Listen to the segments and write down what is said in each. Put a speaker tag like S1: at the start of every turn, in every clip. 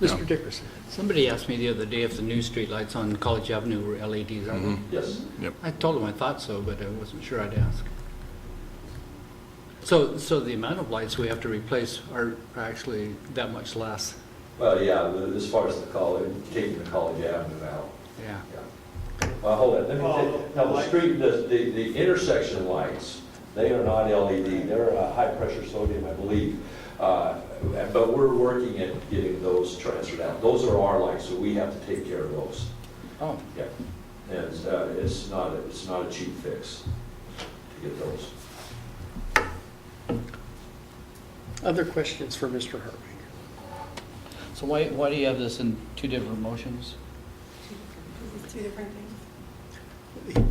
S1: Mr. Dickerson.
S2: Somebody asked me the other day if the new streetlights on College Avenue were LEDs.
S3: Mm-hmm.
S2: I-
S3: Yes.
S2: I told them I thought so, but I wasn't sure I'd ask. So, so the amount of lights we have to replace are actually that much less,
S3: Well, yeah, the- as far as the college, taking the college avenue out,
S2: yeah.
S3: yeah. Well, hold on, let me take, now, the street, the, the the intersection lights, they are not LED, they're uh, high-pressure sodium, I believe. Uh, But we're working at getting those transferred out. Those are our lights, so we have to take care of those.
S2: Oh,
S3: Yeah. And it's, uh, it's not, it's not a cheap fix to get those.
S1: Other questions for Mr. Hartwig?
S4: So why, why do you have this in two different motions?
S5: Is it two different things?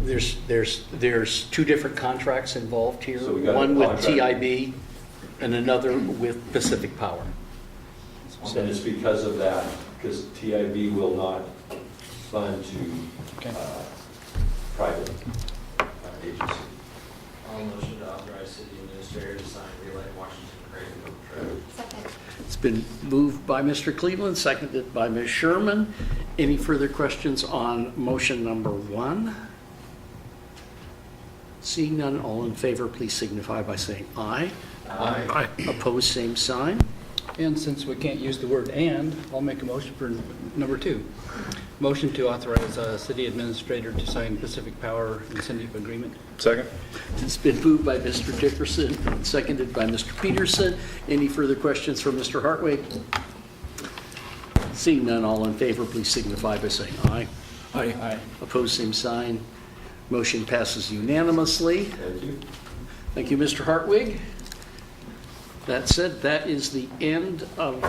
S1: There's, there's, there's two different contracts involved here.
S3: So we got a
S1: One with
S3: contract.
S1: TIB and another with Pacific Power.
S3: And it's because of that, because TIB will not fund to
S4: Okay.
S3: uh, private uh, agency.
S6: I'll motion to authorize city administrator to sign Relight Washington Creighton contract.
S5: Second.
S1: It's been moved by Mr. Cleveland, seconded by Ms. Sherman. Any further questions on motion number one? Seeing none, all in favor, please signify by saying aye. Aye. Opposed, same sign.
S2: And since we can't use the word "and," I'll make a motion for number two. Motion to authorize uh, city administrator to sign Pacific Power incentive agreement.
S7: Second?
S1: It's been moved by Mr. Dickerson, and seconded by Mr. Peterson. Any further questions for Mr. Hartwig? Seeing none, all in favor, please signify by saying aye.
S4: Aye.
S1: Opposed, same sign. Motion passes unanimously.
S3: Thank you.
S1: Thank you, Mr. Hartwig. That said, that is the end of